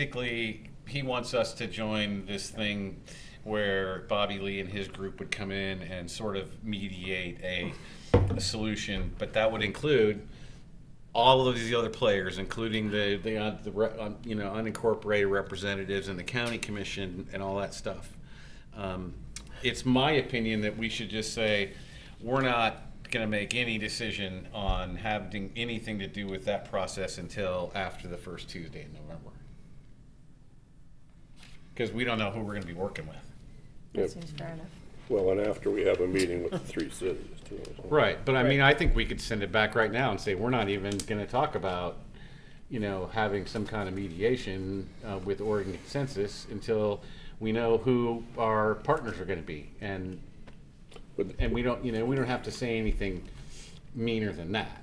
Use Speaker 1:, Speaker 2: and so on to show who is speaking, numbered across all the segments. Speaker 1: Basically, he wants us to join this thing where Bobby Lee and his group would come in and sort of mediate a, a solution, but that would include all of these other players, including the the, uh, the re, um, you know unincorporated representatives and the county commission and all that stuff. Um, it's my opinion that we should just say we're not going to make any decision on having anything to do with that process until after the first Tuesday in November, because we don't know who we're going to be working with.
Speaker 2: Yeah,
Speaker 3: That seems fair enough.
Speaker 2: Well, and after we have a meeting with the three cities too. so.
Speaker 1: Right, but I mean, I think we could send it back right now and say, we're not even gonna talk about, you know, having some kind of mediation uh, with Oregon consensus until we know who our partners are gonna be. And,
Speaker 2: Would,
Speaker 1: and we don't, you know, we don't have to say anything meaner than that.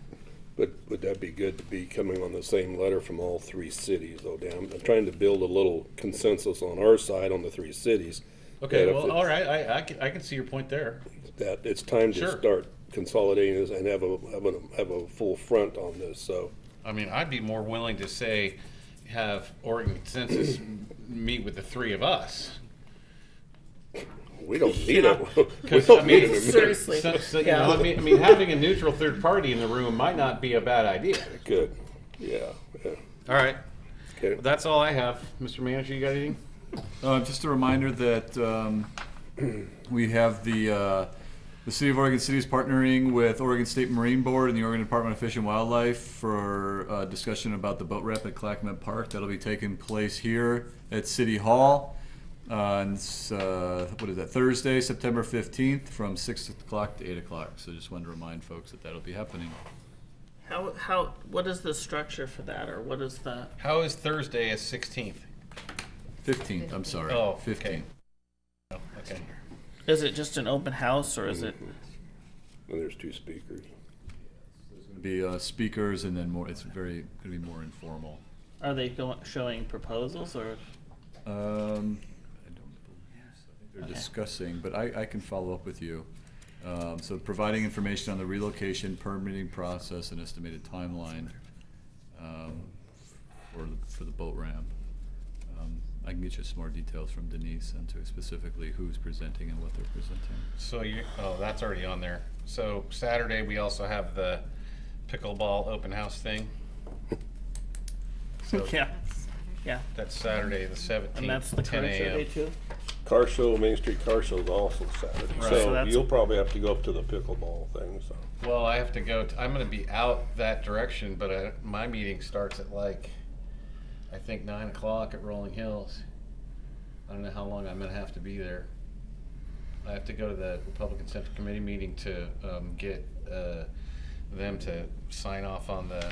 Speaker 2: would, would that be good to be coming on the same letter from all three cities though, Dan? I'm trying to build a little consensus on our side on the three cities. that if it's-
Speaker 1: right, I, I can, I can see your point there.
Speaker 2: That it's time to
Speaker 1: Sure.
Speaker 2: start consolidating this and have a, have a, have a full front on this, so.
Speaker 1: I mean, I'd be more willing to say, have Oregon consensus meet with the three of us.
Speaker 2: We don't need it. We
Speaker 1: 'Cause, I
Speaker 2: don't
Speaker 1: mean,
Speaker 2: need it.
Speaker 4: Seriously.
Speaker 1: So, so, you
Speaker 4: Yeah.
Speaker 1: know, I mean, I mean, having a neutral third party in the room might not be a bad idea.
Speaker 2: Good, yeah, yeah.
Speaker 1: All right.
Speaker 2: Okay.
Speaker 1: Well, that's all I have. Mr. Manager, you got anything?
Speaker 5: Uh, just a reminder that um, we have the uh, the City of Oregon City is partnering with Oregon State Marine Board and the Oregon Department of Fish and Wildlife for uh, discussion about the boat ramp at Clackamas Park. That'll be taking place here at City Hall on s- uh, what is that Thursday, September fifteenth, from six o'clock to eight o'clock. So just wanted to remind folks that that'll be happening.
Speaker 4: How how what is the structure for that, or what is the?
Speaker 1: How is Thursday at 16th?
Speaker 5: Fifteenth, I'm sorry,
Speaker 1: Oh, okay.
Speaker 5: fifteenth.
Speaker 1: Oh, okay.
Speaker 4: Is it just an open house, or is it?
Speaker 2: And there's two speakers.
Speaker 5: Be uh, speakers and then more. It's very going to be more informal.
Speaker 4: Are they going showing proposals, or
Speaker 5: Um, I don't believe so. I think They're
Speaker 4: Okay.
Speaker 5: discussing, but I, I can follow up with you. Um, so providing information on the relocation permitting process and estimated timeline, um, for, the- for the boat ramp. Um, I can get you some more details from Denise on to specifically who's presenting and what they're presenting.
Speaker 1: So you, oh, that's already on there. So Saturday, we also have the pickleball open house thing. So
Speaker 4: yeah, yeah,
Speaker 1: That's Saturday, the 17th.
Speaker 4: and that's the
Speaker 1: 10
Speaker 4: kind of
Speaker 1: a.m.
Speaker 4: survey too.
Speaker 2: Car show, Main Street Car Show is also Saturday,
Speaker 1: Right.
Speaker 4: So
Speaker 2: so
Speaker 4: that's-
Speaker 2: you'll probably have to go up to the pickleball thing, so.
Speaker 1: Well, I have to go, t- I'm gonna be out that direction, but I, my meeting starts at like, I think nine o'clock at Rolling Hills. I don't know how long I'm gonna have to be there. I have to go to the Republican Central Committee meeting to, um, get, uh, them to sign off on the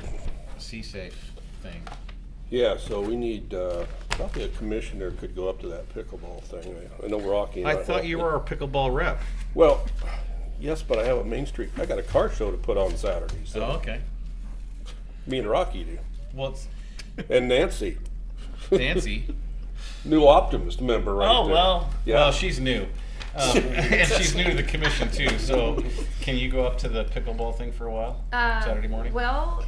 Speaker 1: C-Safe thing.
Speaker 2: Yeah, so we need, uh, probably a commissioner could go up to that pickleball thing. I know Rocky. and
Speaker 1: I thought you were our pickleball rep.
Speaker 2: Well, yes, but I have a Main Street, I got a car show to put on Saturday,
Speaker 1: Oh,
Speaker 2: so
Speaker 1: okay.
Speaker 2: me and Rocky do.
Speaker 1: Well, it's
Speaker 2: And Nancy,
Speaker 1: Nancy.
Speaker 2: new Optimist member right there.
Speaker 4: Oh well,
Speaker 1: Well,
Speaker 2: Yeah,
Speaker 1: she's new. Um, and she's new to the commission too, so can you go up to the pickleball thing for a while?
Speaker 6: Um,
Speaker 1: Saturday morning?
Speaker 6: Well,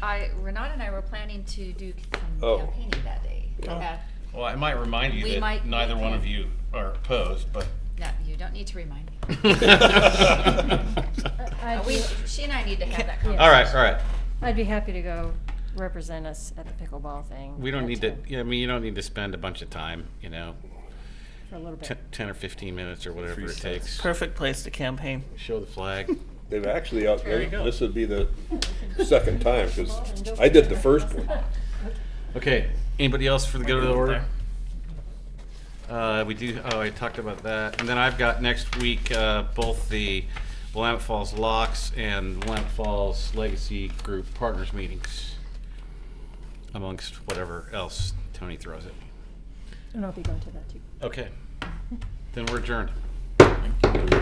Speaker 6: I Renan and I were planning to do some
Speaker 2: Oh.
Speaker 6: campaigning that day. Uh,
Speaker 1: Well, I might remind you
Speaker 6: We
Speaker 1: that
Speaker 6: might-
Speaker 1: neither one of you are opposed, but
Speaker 6: no, you don't need to remind me.
Speaker 1: all
Speaker 6: Uh,
Speaker 3: I'd
Speaker 6: we,
Speaker 3: be,
Speaker 6: she and I need to have that conversation.
Speaker 1: right, all right.
Speaker 3: I'd be happy to go represent us at the pickleball thing.
Speaker 1: We don't
Speaker 3: at
Speaker 1: need to.
Speaker 3: 10
Speaker 1: Yeah, I mean, you don't need to spend a bunch of time. You know,
Speaker 3: For a little
Speaker 1: t-
Speaker 3: bit.
Speaker 1: ten or fifteen minutes or whatever
Speaker 5: Three
Speaker 1: it takes.
Speaker 4: perfect place to campaign.
Speaker 1: Show the flag.
Speaker 2: they've actually, out-
Speaker 1: There you go.
Speaker 2: this would be the second time, cause I did the first one.
Speaker 1: Okay. Anybody else for the good of the
Speaker 4: Right
Speaker 1: order? Uh, we do. Oh, I talked about that. And then I've got next week uh, both the Willamette Falls Locks and Willamette Falls Legacy Group Partners meetings, amongst whatever else Tony throws at me.
Speaker 3: And I'll be going to that too.
Speaker 1: Okay. Then we're adjourned.
Speaker 2: We're